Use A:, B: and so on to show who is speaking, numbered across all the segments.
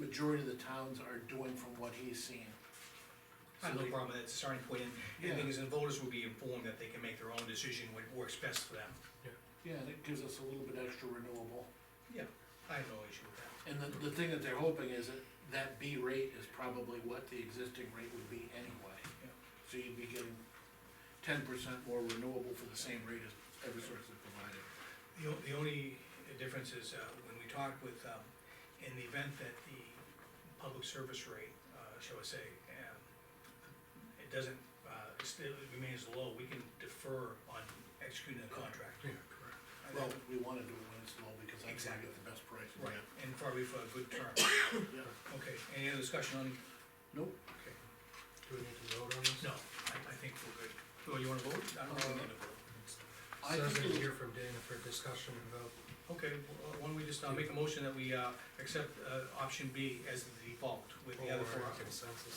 A: majority of the towns are doing from what he's seeing.
B: I have no problem with that, it's a starting point, and
A: Yeah.
B: the thing is, the voters will be informed that they can make their own decision what works best for them.
A: Yeah, and it gives us a little bit extra renewable.
B: Yeah, I have no issue with that.
A: And the, the thing that they're hoping is that that B rate is probably what the existing rate would be anyway.
B: Yeah.
A: So you'd be getting ten percent more renewable for the same rate as Eversource is providing.
B: The, o- the only difference is, uh, when we talk with, um, in the event that the public service rate, uh, shall I say, um, it doesn't, uh, it still remains low, we can defer on executing the contract.
C: Yeah, correct.
B: And
A: Well,
B: that-
A: we wanna do it when it's low, because that's where we get the best price.
B: Right, and probably for a good term.
A: Yeah.
B: Okay, any other discussion on,
A: Nope,
B: okay,
C: Do we need to vote on this?
B: no, I, I think we're good. Oh, you wanna vote? I don't think we need to vote.
A: I
C: Says
A: think
C: in
A: it-
C: here from Dana for discussion about,
B: Uh, Okay, well, why don't we just, uh make a motion that we, uh, accept, uh, option B as the default with the other four
C: or
B: options.
C: consensus.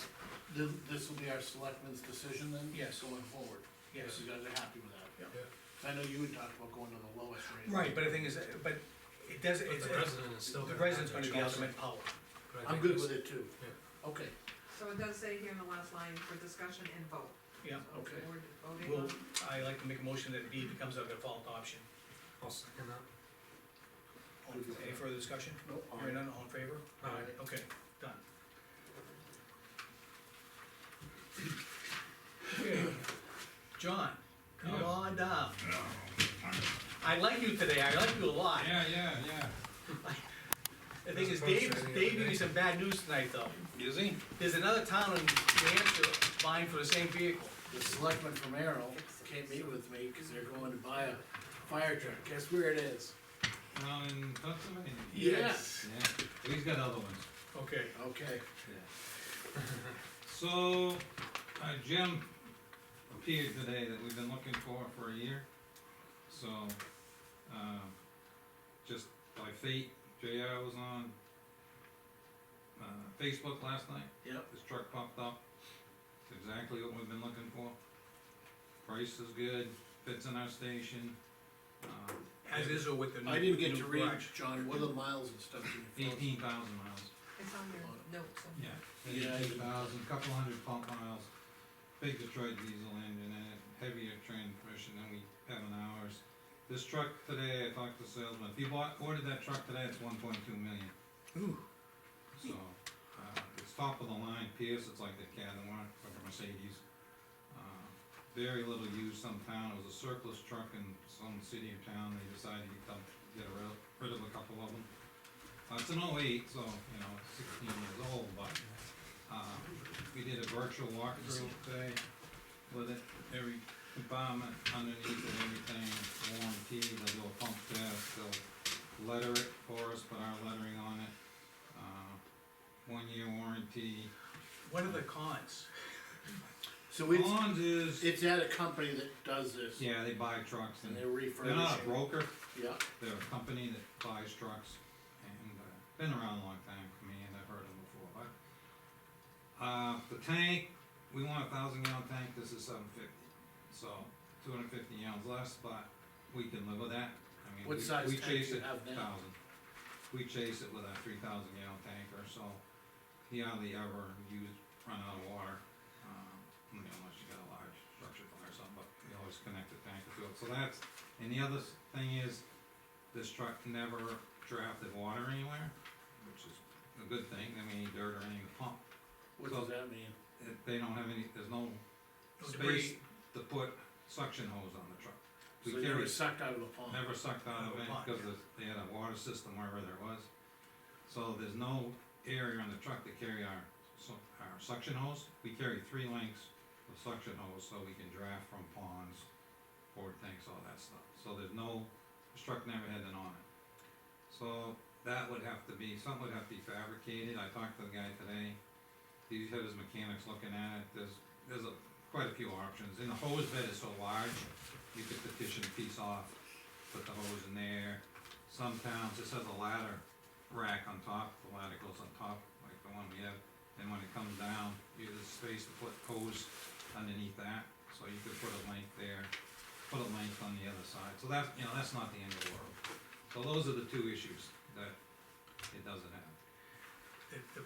A: this, this will be our selectmen's decision then?
B: Yes.
A: Going forward?
B: Yes.
A: You guys are happy with that?
B: Yeah.
A: So I know you had talked about going to the lowest rate.
B: Right, but the thing is, uh, but it does,
C: But
B: it's,
C: the resident is still.
B: the
C: gonna
B: resident's
C: have
B: gonna
C: their
B: be
C: choice.
B: ultimate power.
C: But I
A: I'm
C: think
A: good
C: this-
A: with it too.
C: Yeah.
A: Okay,
D: So it does say here in the last line, for discussion and vote.
B: Yeah,
D: So
A: okay.
D: We're voting
B: well,
D: on,
B: I like to make a motion that B becomes our default option.
C: I'll second that.
B: Any further discussion?
A: no, all
B: Hearing
A: right.
B: none, all in favor?
C: Aye.
B: Okay, done. Okay, John, come
E: Yeah.
B: on down. I like you today, I like you a lot.
E: Yeah, yeah,
B: The thing is,
C: That's
B: Dave,
C: frustrating,
B: Dave gave
C: isn't
B: me
C: it?
B: some bad news tonight, though.
E: yeah. Is he?
B: There's another town in New Hampshire vying for the same vehicle.
A: The selectman from Arrow can't meet with me, cause they're going to buy a fire truck, guess where it is?
E: Down in Pennsylvania?
A: Yes.
E: Yeah, he's got other ones.
B: Okay.
A: Okay,
E: So, uh, Jim appeared today that we've been looking for for a year. So, um, just by fate, JR was on, uh, Facebook last night.
A: yep,
E: This truck popped up, it's exactly what we've been looking for. Price is good, fits in our station. Um,
B: As is or with the new.
A: I didn't get
B: new
A: to read,
B: garage.
A: John, what are the miles and stuff do you feel?
E: eighteen thousand miles.
D: it's on your notes.
E: Yeah.
A: Yeah, I-
E: Eighteen thousand, couple hundred pump miles, big Detroit diesel engine in it, heavier transmission than we have in ours. This truck today, I talked to salesman, if you bought, ordered that truck today, it's one point two million.
A: Ooh.
E: So, uh, it's top of the line, Pierce, it's like the Cadillac or the Mercedes. Uh, Very little used some town, it was a surplus truck in some city or town, they decided to dump, get rid of, rid of a couple of them. Uh, it's an oh eight, so, you know, it's sixteen years old, but, uh, we did a virtual walkthrough today with it, every compartment underneath and everything, warranty, they do a pump test, they'll letter it for us, put our lettering on it. Uh, one year warranty.
B: What are the cons?
A: So it's,
E: Bonds is,
A: it's at a company that does this,
E: Oh. yeah, they buy trucks
A: and
E: and
A: they're
E: they're not
A: refurbishing,
E: a broker,
A: yeah,
E: they're a company that buys trucks and, uh, been around a long time for me and I've heard them before, but. Uh, the tank, we want a thousand gallon tank, this is seven fifty, so two hundred fifty gallons less, but we can live with that. I mean,
A: what
E: we-
A: size
E: we
A: tank
E: chase
A: do you
E: it
A: have now?
E: thousand. We chase it with a three thousand gallon tanker, so he hardly ever use, run out of water. um, you know, Unless you got a large structure fire or something, but we always connect the tanker to it, so that's, and the other s- thing is, this truck never drafted water anywhere, which is a good thing, I mean, dirt or anything to pump.
A: What does that mean?
E: If They don't have any, there's no
B: No
E: space
B: debris.
E: to put suction hose on the truck. We
A: So
E: carry-
A: you're sucked out of a pond?
E: Never sucked out of it, because they had a water system wherever there was. So there's no area on the truck to carry our, su- our suction hose. We carry three lengths of suction hose, so we can draft from ponds, forward tanks, all that stuff. So there's no, this truck never had an on it. So that would have to be, something would have to be fabricated. I talked to the guy today. He had his mechanics looking at it. There's, there's a, quite a few options. And the hose bed is so large, you could petition a piece off put the hose in there. Some towns, this has a ladder rack on top, the ladder goes on top, like the one we have, and when it comes down, you have the space to put hose underneath that, so you could put a length there, put a length on the other side, so that's, you know, that's not the end of the world. So those are the two issues that it doesn't have.
B: The, the